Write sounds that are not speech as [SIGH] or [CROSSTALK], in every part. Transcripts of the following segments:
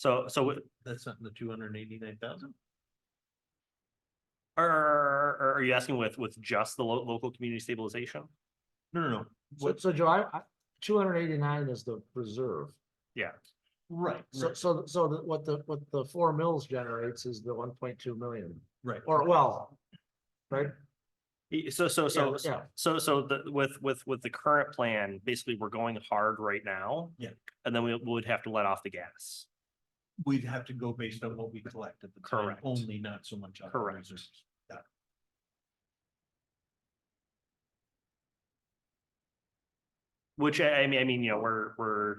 So, so That's not in the two hundred and eighty-nine thousand? are, are, are you asking with, with just the lo- local community stabilization? No, no, no. So, What's, so Joe, I, two hundred eighty-nine is the reserve. Yeah, right, so, So, so, so the- what the, what the four mills generates is the one point two million, right. or well, right? E- so, so, so, Yeah, Yeah, so, so the, with, with, with the current plan, basically, we're going hard right now. Yeah. And then we would have to let off the gas. We'd have to go based on what we collect at the time, Correct. only not so much. on the Correct. reserves. Which I, I mean, I mean, you know, we're, we're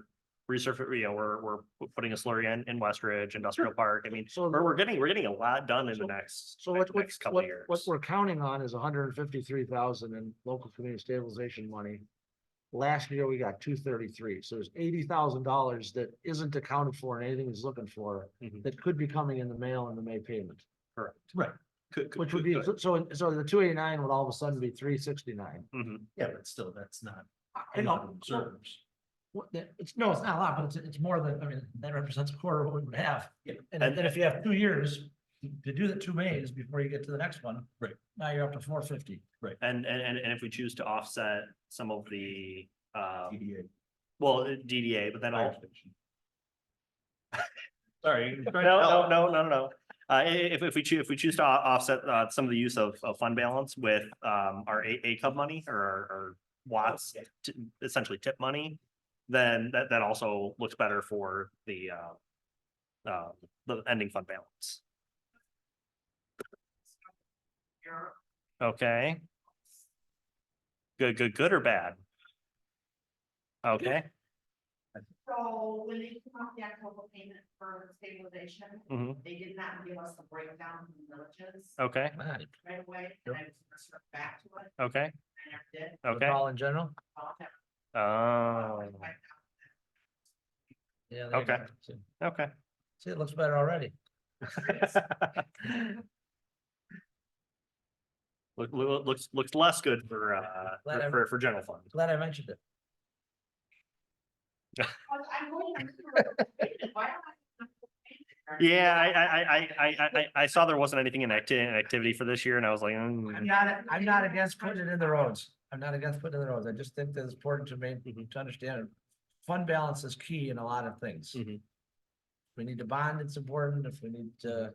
resurfacing, you know, we're, we're putting a slurry in, in West Ridge Industrial Park. I mean, so, we're, we're getting, we're getting a lot done in the So- next, so what, what, next couple what, of years. what we're counting on is hundred and fifty-three thousand in local community stabilization money. Last year, we got two thirty-three, so there's eighty thousand dollars that isn't accounted for in anything he's looking for, Mhm. that could be coming in the mail in the May payment. Right. Could- could- Which would could- be, could- so- so, so the two eighty-nine would all of a sudden be three sixty-nine. Mhm. Yeah, but still, that's not. I enough know, well, Reserves. what the- it's, no, it's not a lot, but it's, it's more than, I mean, that represents a quarter of what we would have. Yeah. And then if you have two years to do the two Mays before you get to the next one. Right. Now you're up to four fifty. And, and, and, and if we choose to offset some of the, um TDA, well, DDA, but then fire all, station. [LAUGHS] Sorry. I'm trying to No, no, help. no, no, no, no. Uh, i- i- if, if we choose, if we choose to o- offset, uh, some of the use of, of fund balance with, um, our A, A cub money or, our- our Watts, Yeah. t- essentially tip money, then that, that also looks better for the, uh, uh, the ending fund balance. Okay. Good, good, good or bad? Okay, So when they took out the October payment for stabilization, hmm they did not give us the breakdown from the villages okay, right away, and I was gonna circle back to it, okay, and I never did. okay. in general? I'll have to Oh, find out. Yeah. you Okay. okay. See, it looks better already. [LAUGHS] Look, look, looks, looks less good for, uh, Glad I- for, for general fund. Glad I mentioned it. But I'm going, I'm sure, why am I- Yeah, I, I, I, I, I, I, I saw there wasn't anything in acti- in activity for this year and I was like, I'm mm, not, I'm not against putting it in the roads. I'm not against putting it in the roads. I just think that it's important to make, Mm-hmm. to understand. Fund balance is key in a lot of things. Mhm. If We need to bond, it's important. If we need to,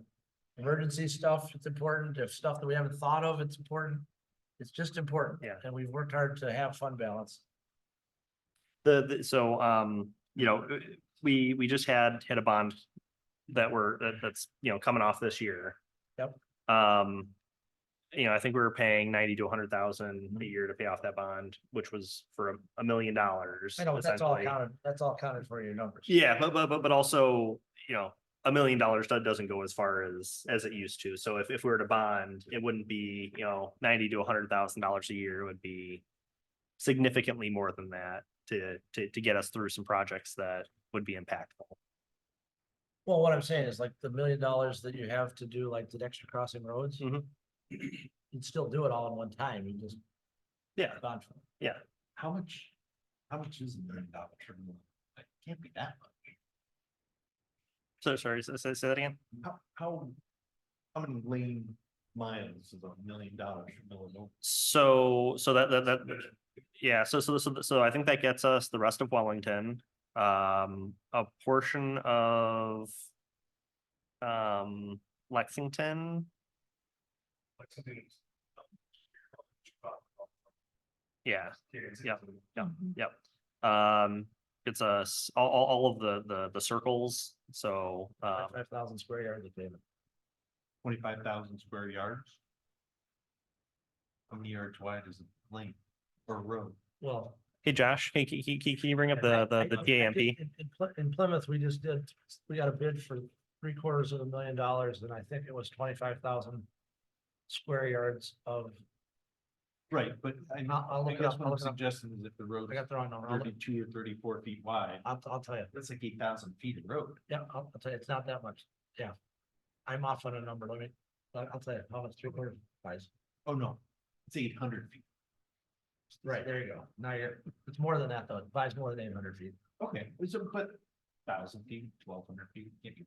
Mm-hmm. emergency stuff, it's important. If stuff that we haven't thought of, it's important. It's just important. Yeah. And we've worked hard to have fund balance. the, the, so, um, you know, we, we just had, had a bond that we're, that, that's, you know, coming off this year. Yep. Um, you know, I think we were paying ninety to a hundred Mm-hmm. thousand a year to pay off that bond, which was for a- a million dollars. I know, but that's all essentially. counted, that's all counted for your numbers. Yeah, but but but but also, you know, a million dollars do- doesn't go as far as as it used to. So if if we were to bond, it wouldn't be, you know, ninety to a hundred thousand dollars a year. It would be significantly more than that to to to get us through some projects that would be impactful. Well, what I'm saying is like the million dollars that you have to do, like the extra crossing roads. Mhm. You'd still do it all in one time, you just. Yeah. bond for it. How much, how much is a million dollar term loan? It can't be that much. So sorry, say say say that again? How, how, how many lane miles is a million dollars from Illinois? So, so that, that, that, yeah, so, so, so, so I think that gets us the rest of Wellington, um, a portion of um, Lexington, yeah, Yeah, yeah, yep. Um, it's us, all, all, all of the, the, the circles, so, um, Five thousand square yards of pavement. Twenty-five thousand square yards? How many yards wide is a lane or road? Well. hey, Josh, hey, can, can, can you bring up I- the, the, I- the I- I TAMP? did- in- in Ply- In Plymouth, we just did, we got a bid for three quarters of a million dollars, and I think it was twenty-five thousand square yards of, Right, but I, I'll- I'll I look it guess up, what I'll I'm look it up. suggesting is if the road I got the wrong number. I'll look- thirty-two or thirty-four feet wide, I'll, I'll tell you. that's like eight thousand feet of road. Yeah, I'll, I'll tell you, it's not that much, yeah. I'm off on a number, let me, I'll I'll tell you, how much three quarters buys. Oh, no, it's eight hundred feet. Right, there you go. Now you're, it's more than that though, it buys more than eight hundred feet. Okay, so, but thousand feet, twelve hundred feet, can't you